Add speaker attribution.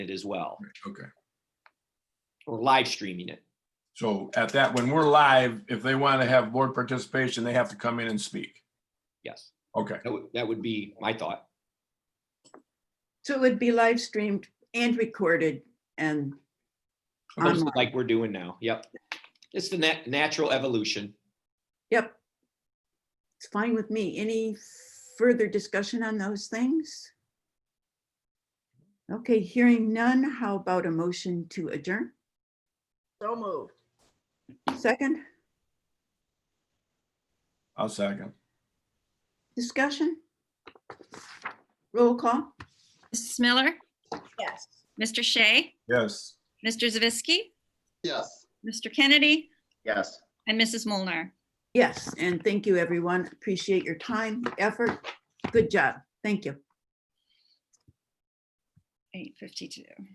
Speaker 1: it as well,
Speaker 2: Okay,
Speaker 1: or live streaming it.
Speaker 2: so at that, when we're live, if they want to have board participation, they have to come in and speak.
Speaker 1: Yes,
Speaker 2: Okay,
Speaker 1: that would, that would be my thought.
Speaker 3: So it would be live streamed and recorded and
Speaker 1: Looks
Speaker 3: Online.
Speaker 1: Like we're doing now. Yep. It's the nat- natural evolution.
Speaker 3: yep. It's fine with me. Any further discussion on those things? Okay, hearing none, how about a motion to adjourn?
Speaker 4: So moved.
Speaker 3: Second,
Speaker 2: I'll second.
Speaker 3: discussion? Roll call?
Speaker 5: Mrs. Miller,
Speaker 4: Yes.
Speaker 5: Mr. Shea,
Speaker 2: Yes.
Speaker 5: Mr. Zavisky,
Speaker 6: Yes.
Speaker 5: Mr. Kennedy,
Speaker 6: Yes.
Speaker 5: and Mrs. Molnar.
Speaker 3: Yes, and thank you, everyone. Appreciate your time, effort. Good job. Thank you.
Speaker 5: 852.